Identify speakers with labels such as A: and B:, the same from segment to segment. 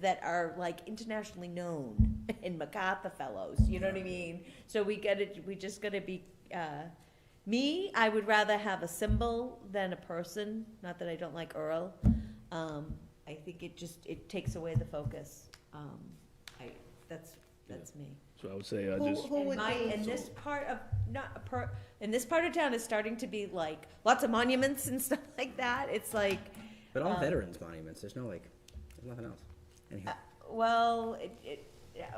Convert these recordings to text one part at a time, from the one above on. A: that are like internationally known and MacArthur Fellows, you know what I mean? So we gotta, we just gotta be, uh, me, I would rather have a symbol than a person, not that I don't like Earl. Um, I think it just, it takes away the focus. Um, I, that's, that's me.
B: So I would say, I
C: Who-
B: just,
C: who
A: And
C: would
A: my,
C: be-
A: and this part of, not a per, and this part of town is starting to be like, lots of monuments and stuff like that. It's like,
D: But all
A: Um,
D: veterans monuments. There's no like, there's nothing else. Anyhow,
A: Uh, Well, it, it, yeah,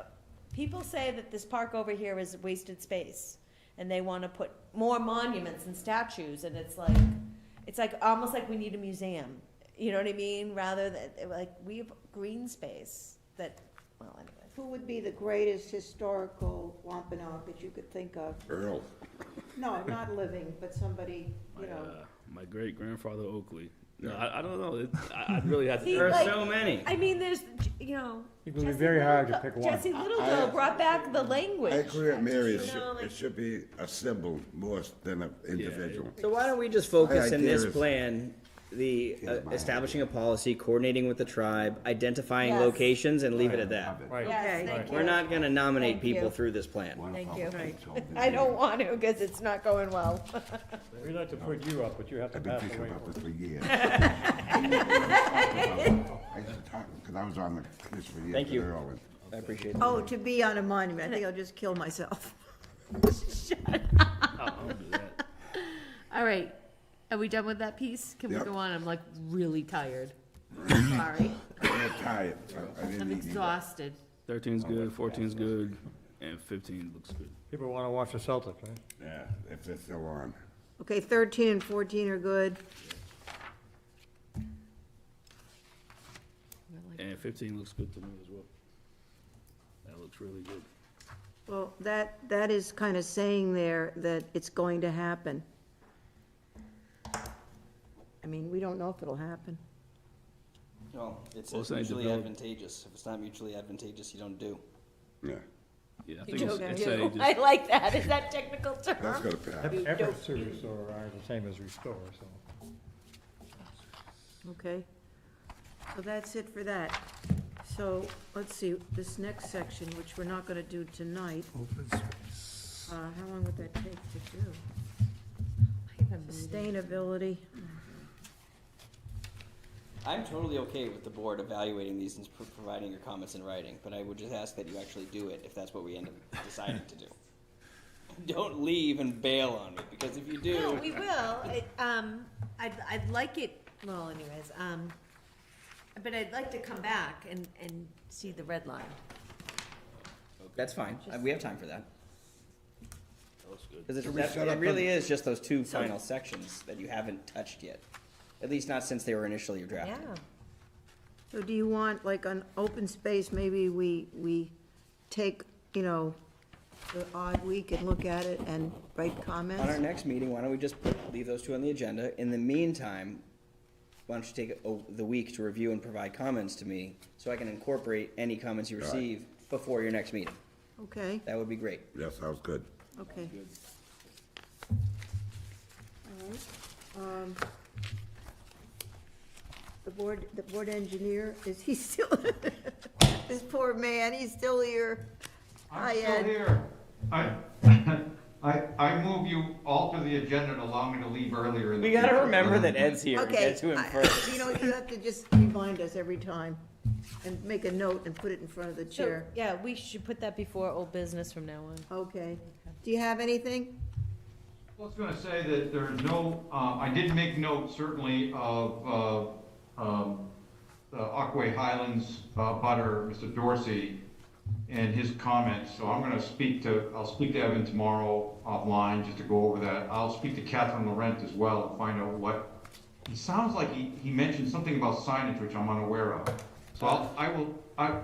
A: people say that this park over here is wasted space, and they wanna put more monuments and statues, and it's like, it's like, almost like we need a museum, you know what I mean? Rather than, like, we have green space that, well, anyways.
C: Who would be the greatest historical Wampanoag that you could think of?
E: Earl.
C: No, not living, but somebody,
B: my,
C: you know.
B: uh, my great grandfather Oakley. No, I, I don't know. It, I, I'd really have to.
A: See,
D: there are
A: like-
D: so many.
A: I mean, there's, you know.
F: It would be
A: Jesse
F: very hard to
A: Littlego-
F: pick one.
A: Jesse
E: I-
A: Littlego brought back the language.
E: I agree with Mary, it
A: You know,
E: should,
A: like-
E: it should be a symbol more than an individual.
D: So why don't we just focus
E: My
D: in
E: idea
D: this
E: is-
D: plan, the uh,
E: my
D: establishing a policy, coordinating with the tribe, identifying
A: Yes.
D: locations, and leave it at that.
F: Right.
A: Yes, thank you.
D: We're not gonna nominate
A: Thank you.
D: people through this plan.
A: Thank you. I don't want to, cause it's not going well.
F: We'd like to put you up, but you have to
E: I've been
F: pass
E: thinking
F: away.
E: about this for years. I used to talk, because I was on the, this for years.
D: Thank you.
E: with Earl and-
D: I appreciate that.
G: Oh, to be on a monument, I think I'll just kill myself.
B: I'll do that.
A: All right, are we done with that piece? Can we
E: Yep.
A: go on? I'm like really tired. Sorry,
E: I'm tired, I- I didn't
A: I'm
E: eat either.
A: exhausted.
B: 13's good, 14's good, and 15 looks good.
F: People want to watch the Celtics, right?
E: Yeah, if they're still on.
G: Okay, thirteen and fourteen are good.
B: And 15 looks good to me as well. That looks really good.
G: Well, that, that is kind of saying there that it's going to happen. I mean, we don't know if it'll happen.
D: Well, it's
B: Well, it's not mutually developed.
D: advantageous. If it's not mutually advantageous, you don't do.
E: Yeah,
B: Yeah, I think it's,
G: don't
B: it's
G: do.
B: a, just,
A: I like that, is that technical
E: that's
A: term?
E: gonna pass.
F: Eff- Efforts to restore are the same as restore, so.
G: Okay, so that's it for that. So, let's see, this next section, which we're not gonna do tonight. Uh, how long would that take to do? Sustainability,
H: I'm totally okay with the board evaluating these and pro- providing your comments in writing, but I would just ask that you actually do it if that's what we end up deciding to do. Don't leave and bail on me, because if you
A: No,
H: do,
A: we will, It, um, I'd, I'd like it, well anyways, um, but I'd like to come back and, and see the red line.
D: That's fine. Uh, We have time for that. Because
E: Should
D: it,
E: we
D: that-
E: set
D: it
E: up
D: really is just those two final sections that you haven't touched yet. At least not since they were initially
A: Yeah,
D: drafted.
G: so do you want, like, on open space, maybe we, we take, you know, the odd week and look at it and write
D: On our
G: comments?
D: next meeting, why don't we just put, leave those two on the agenda? In the meantime, why don't you take o- the week to review and provide comments to me so I can incorporate any comments you
E: right.
D: receive before your next meeting?
G: Okay,
D: That would be great.
E: That sounds good.
G: okay. All right, um, The board, the board engineer, is he still, this poor man, he's still here. Hi,
I: I'm still
G: Ed.
I: here. I, I, I move you alter the agenda and allow me to leave earlier in the
D: We gotta
I: future.
D: remember that Ed's here. We
G: Okay,
D: get to him
G: I-
D: first.
G: You know, you have to just remind us every time and make a note and put it in front of the
A: so,
G: chair.
A: yeah, we should put that before old business from now on.
G: Okay. Do you have anything?
I: I was gonna say that there are no, uh, I did make note certainly of, uh, um, the Aquay Highlands, uh, butter, Mr. Dorsey, and his comments, so I'm gonna speak to, I'll speak to Evan tomorrow offline, just to go over that. I'll speak to Catherine Laurent as well, and find out what, it sounds like he, he mentioned something about signage, which I'm unaware of. So I'll, I will, I,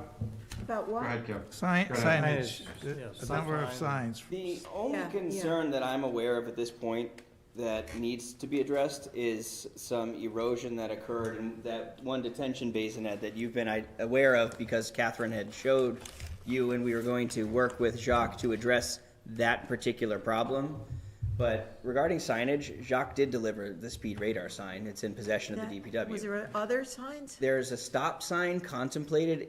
G: About
I: go
G: what?
I: ahead, Kevin.
J: Sign,
I: Go ahead.
J: signage,
F: Signage,
J: the
F: yeah,
J: number of
F: sign.
J: signs.
H: the only
G: Yeah, yeah.
H: concern that I'm aware of at this point that needs to be addressed is some erosion that occurred in that one detention basin Ed, that you've been I- aware of because Catherine had showed you and we were going to work with Jacques to address that particular problem. But regarding signage, Jacques did deliver the speed radar sign. It's in possession of the DPW.
G: Was there other signs?
D: There's a stop sign contemplated